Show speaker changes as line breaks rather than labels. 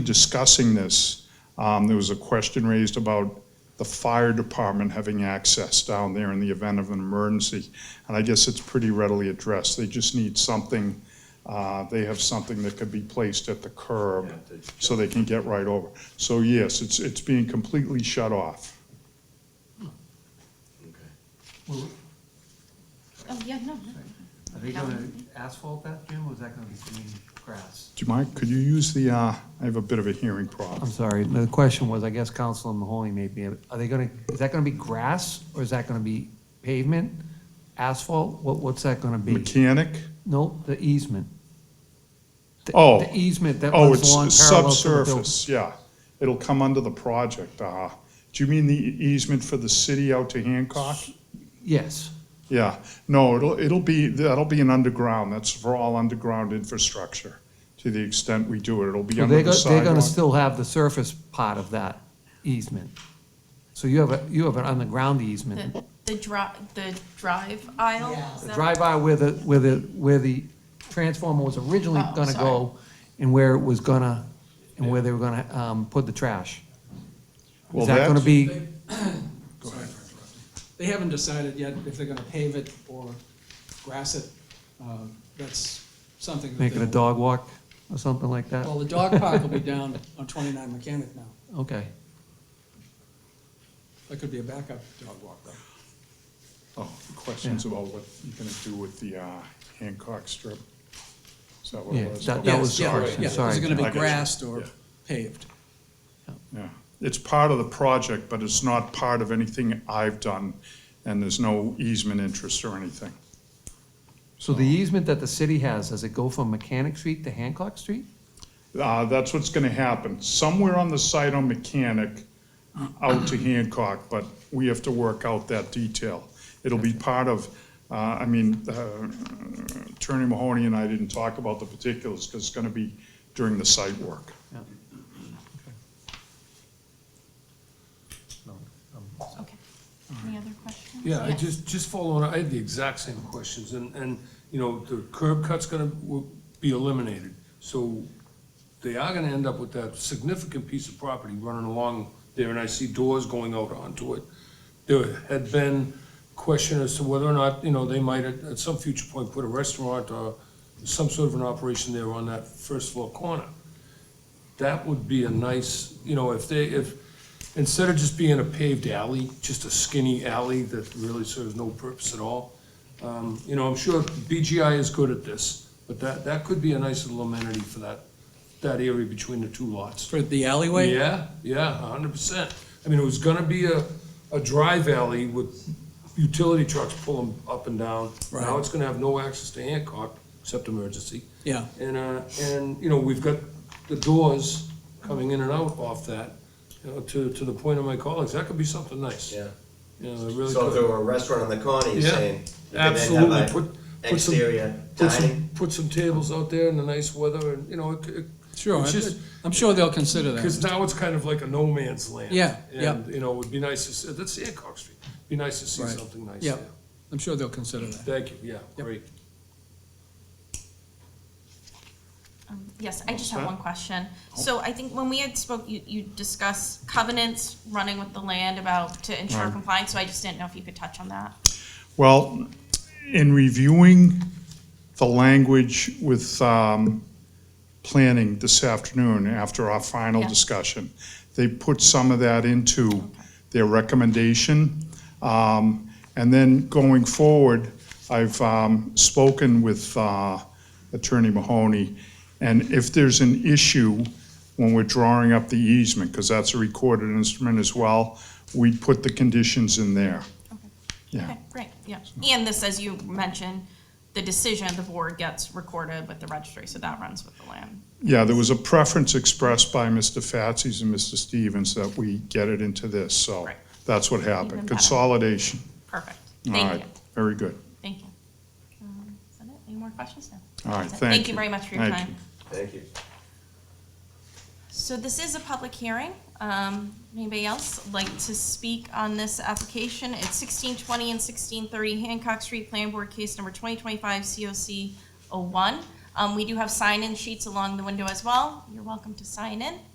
discussing this, um, there was a question raised about the fire department having access down there in the event of an emergency. And I guess it's pretty readily addressed. They just need something, uh, they have something that could be placed at the curb so they can get right over. So yes, it's, it's being completely shut off.
Oh, yeah, no, no.
Are they gonna asphalt that, Jim, or is that gonna be green grass?
Do you mind, could you use the, uh, I have a bit of a hearing
I'm
problem.
sorry, the question was, I guess Councilor Mahoney made me, are they gonna, is that gonna be grass, or is that gonna be pavement, asphalt? What, what's that gonna be?
Mechanic?
No, the easement. The-
Oh.
The easement that
Oh,
runs along
it's
parallel to the building.
subsurface, yeah. It'll come under the project, uh, do you mean the e-, easement for the city out to Hancock?
Yes,
Yeah, no, it'll, it'll be, that'll be an underground, that's for all underground infrastructure. To the extent we do it, it'll be
so
under
they're,
the
go- they're gonna
sidewalk.
still have the surface part of that easement. So you have a, you have an underground easement.
The, the dri- the drive aisle? is
The
that-
drive by where the, where the, where the transformer was originally
Oh,
gonna
sorry.
go, and where it was gonna, and where they were gonna, um, put the trash.
Well,
Is that gonna
that's-
be,
They haven't decided yet if they're gonna pave it or grass it. Uh, That's something that
make it a
they'll-
dog walk or something like that?
Well, the dog park will be down on 29 Mechanic now.
Okay,
That could be a backup dog walk, though.
Oh, questions about what you're gonna do with the, uh, Hancock strip? Is that what
Yeah,
it was?
that-
Okay.
that was the
Yeah, yeah,
question,
yeah. Is
sorry.
it gonna
I
be
got you.
grassed or
Yeah.
paved?
Yeah, it's part of the project, but it's not part of anything I've done, and there's no easement interest or anything.
so the easement that the city has, does it go from Mechanic Street to Hancock Street?
Uh, that's what's gonna happen, somewhere on the site on Mechanic, uh, out to Hancock, but we have to work out that detail. It'll be part of, uh, I mean, uh, Attorney Mahoney and I didn't talk about the particulars, because it's gonna be during the site work.
Okay. Any other questions?
Yeah, I just, just following, I had the exact same questions, and, and, you know, the curb cut's gonna, will be eliminated. So they are gonna end up with that significant piece of property running along there, and I see doors going out onto it. There had been question as to whether or not, you know, they might at, at some future point put a restaurant or some sort of an operation there on that first floor corner. That would be a nice, you know, if they, if, instead of just being a paved alley, just a skinny alley that really serves no purpose at all, um, you know, I'm sure BGI is good at this, but that, that could be a nice little amenity for that, that area between the two lots.
For the alleyway?
Yeah, yeah, a hundred percent. I mean, it was gonna be a, a dry valley with utility trucks pulling up and down. Now
Right.
it's gonna have no access to Hancock, except emergency.
Yeah.
And, uh, and, you know, we've got the doors coming in and out off that, you know, to, to the point of my colleagues, that could be something nice.
Yeah,
You know, it really
so if
could.
there were a restaurant on the corner, you're
Yeah,
saying? you could then have
Absolutely,
like
put, put some,
Exterior
put
dining,
some, put some tables out there in the nice weather and, you know, it, it,
Sure,
It's just-
I'm sure they'll consider
Because
that.
now it's kind of like a no man's land.
Yeah, yeah.
And, you know, it would be nice to, see that's Hancock Street, be nice to see
Right.
something nice
Yeah.
there.
I'm sure they'll consider that.
Thank you, yeah,
Yep.
great.
Um, Yes, I just have one question. So I think when we had spoke, you, you discussed covenants running with the land about to ensure
Right.
compliance, so I just didn't know if you could touch on that.
Well, in reviewing the language with um, planning this afternoon after our final
Yeah.
discussion, they put some of that into their recommendation. Um, And then going forward, I've um, spoken with uh, Attorney Mahoney, and if there's an issue when we're drawing up the easement, because that's a recorded instrument as well, we put the conditions in there. Yeah.
Okay, great, yeah. And this, as you mentioned, the decision of the board gets recorded with the registry, so that runs with the land.
Yeah, there was a preference expressed by Mr. Fatsis and Mr. Stevens that we get it into this, so
Right.
that's what
Even
happened.
better.
Consolidation.
Perfect.
All
Thank
right,
you,
very good.
thank you. Um, Is that it? Any more questions now?
All right,
That's it.
thank
Thank you
you.
very much for your
Thank
time.
you.
thank you.
So this is a public hearing. Um, Anybody else like to speak on this application? It's sixteen twenty and sixteen thirty Hancock Street Plan Board Case Number twenty twenty-five COC oh one. Um, we do have sign-in sheets along the window as well. You're welcome to sign in.